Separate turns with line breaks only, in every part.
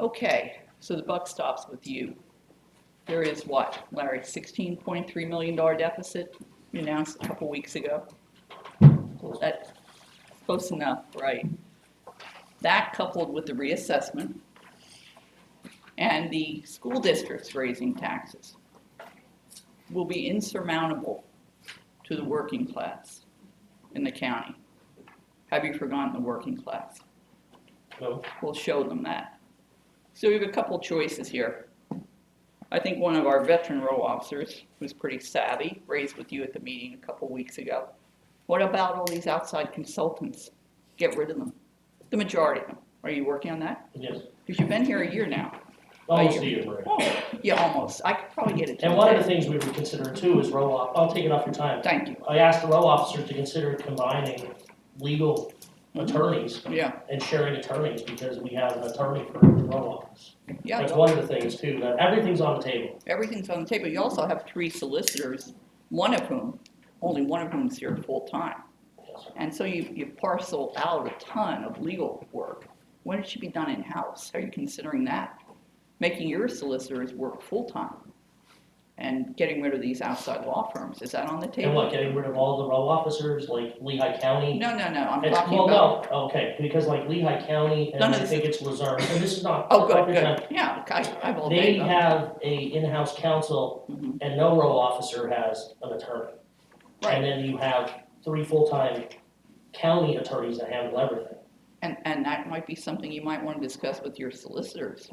Okay, so the buck stops with you. There is what, Larry, sixteen point three million dollar deficit you announced a couple weeks ago? That's close enough, right? That coupled with the reassessment and the school districts raising taxes will be insurmountable to the working class in the county. Have you forgotten the working class?
No,
We'll show them that. So we have a couple choices here. I think one of our veteran row officers, who's pretty savvy, raised with you at the meeting a couple weeks ago. What about all these outside consultants? Get rid of them, the majority of them. Are you working on that?
yes,
Because you've been here a year now.
almost a year, Maria.
Oh, yeah, almost. I could probably get it.
And one of the
today.
things we would consider too is row off, I'll take it off your time.
Thank you.
I asked the row officers to consider combining legal
Mm-hmm.
attorneys
Yeah,
and sharing attorneys because we have an attorney for the row office.
yeah.
That's one of the things too, that everything's on the table.
everything's on the table. You also have three solicitors, one of whom, only one of whom's here full-time. And so you, you parcel out a ton of legal work. When it should be done in-house, are you considering that? Making your solicitors work full-time and getting rid of these outside law firms, is that on the
And what,
table?
getting rid of all the row officers like Lehigh County?
No, no, no, I'm
It's,
talking
well,
about,
no, okay, because like Lehigh County and
None
I
of this
think it's Luzerne, and this is not.
oh,
off
good,
your time.
good, yeah, I, I've all
They
day.
have a in-house counsel
Mhm.
and no row officer has an attorney.
Right.
And then you have three full-time county attorneys that handle everything.
And, and that might be something you might want to discuss with your solicitors,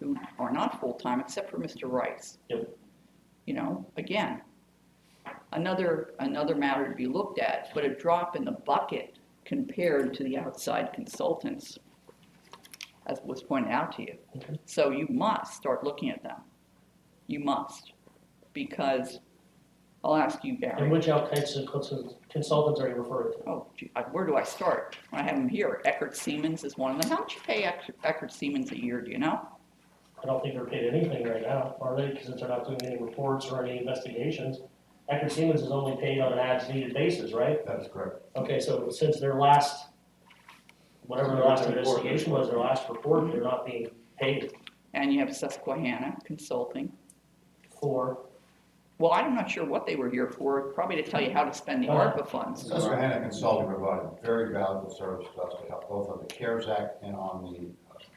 who are not full-time, except for Mr. Rice.
Yep.
You know, again, another, another matter to be looked at, but a drop in the bucket compared to the outside consultants, as was pointed out to you.
Okay.
So you must start looking at them. You must, because, I'll ask you, Gary.
And which outside consultants consultants are you referring to?
Oh, gee, I- where do I start? I have them here. Eckerd Siemens is one of them. How much you pay Eck- Eckerd Siemens a year, do you know?
I don't think they're paid anything right now, are they? Because they're not doing any reports or any investigations. Eckerd Siemens is only paid on an as-needed basis, right?
That is correct.
Okay, so since their last, whatever their last investigation was, their last report, they're not being paid
And you have Susquehanna Consulting.
for,
Well, I'm not sure what they were here for, probably to tell you how to spend the
Alright.
ARPA funds.
Susquehanna Consulting provided very valuable service to us to help both on the CARES Act and on the.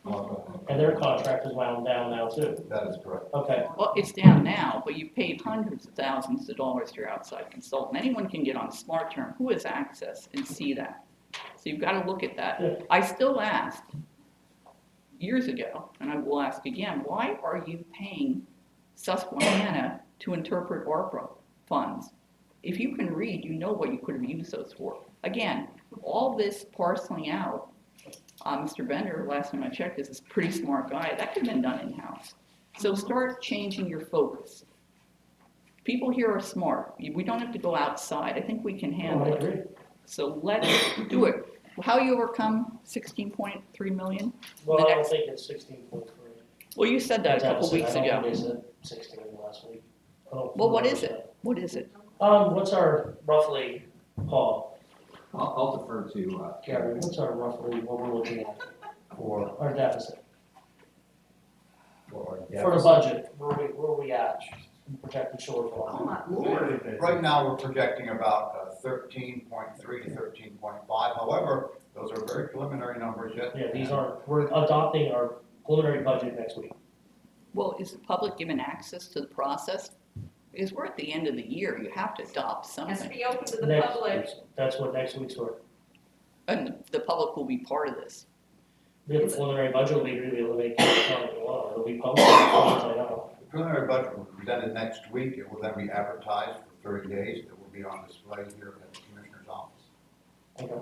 uh,
and their contract is wound down now too.
That is correct.
Okay,
Well, it's down now, but you paid hundreds of thousands of dollars to your outside consultant. Anyone can get on Smart Term, who has access and see that? So you've got to look at
Yeah.
that. I still asked years ago, and I will ask again, why are you paying Susquehanna to interpret ARPA funds? If you can read, you know what you could have used those for. Again, all this parceling out, uh, Mr. Bender, last time I checked, is a pretty smart guy. That could have been done in-house. So start changing your focus. People here are smart. We don't have to go outside. I think we can
Well, I
handle it.
agree.
So let's do it. How you overcome sixteen point three million?
Well,
The
I don't
next-
think it's sixteen point three.
Well, you said that a couple weeks
I don't
ago.
think they said sixteen last week. I don't
Well, what is
remember.
it? What is it?
Um, what's our roughly, Paul,
I'll, I'll defer to, uh,
Gary, what's our roughly, what we're looking at,
For,
our deficit? Oh,
for.
For the budget, where we, where we at, projected shortfall?
Right now, we're projecting about uh, thirteen point three to thirteen point five. However, those are very preliminary numbers yet.
Yeah, these are, we're adopting our preliminary budget next week.
Well, is the public given access to the process? Because we're at the end of the year. You have to adopt
Has to
something.
be open to the
Next-
public.
That's what next week's for.
And the public will be part of this.
We have a preliminary budget, we'll be able to make it come along, it'll be posted, as soon as I know.
The preliminary budget will be presented next week. It will then be advertised for thirty days. It will be on display here at the commissioner's office.
Okay.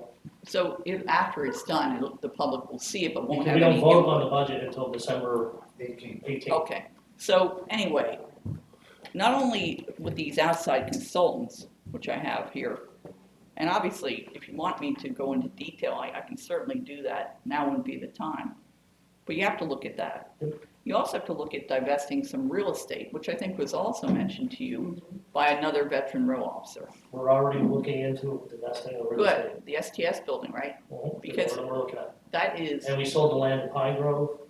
So if, after it's done, it'll- the public will see it, but won't
Because
have
we
any.
don't vote
input.
on the budget until December
Eighteen.
eighteenth.
Okay, so anyway, not only with these outside consultants, which I have here, and obviously, if you want me to go into detail, I, I can certainly do that. Now wouldn't be the time. But you have to look at that. You also have to look at divesting some real estate, which I think was also mentioned to you by another veteran row officer.
We're already looking into divesting of real estate.
Good, the STS building, right?
Well, that's
Because-
what we're looking at.
That is.
And we sold the land in Pine Grove.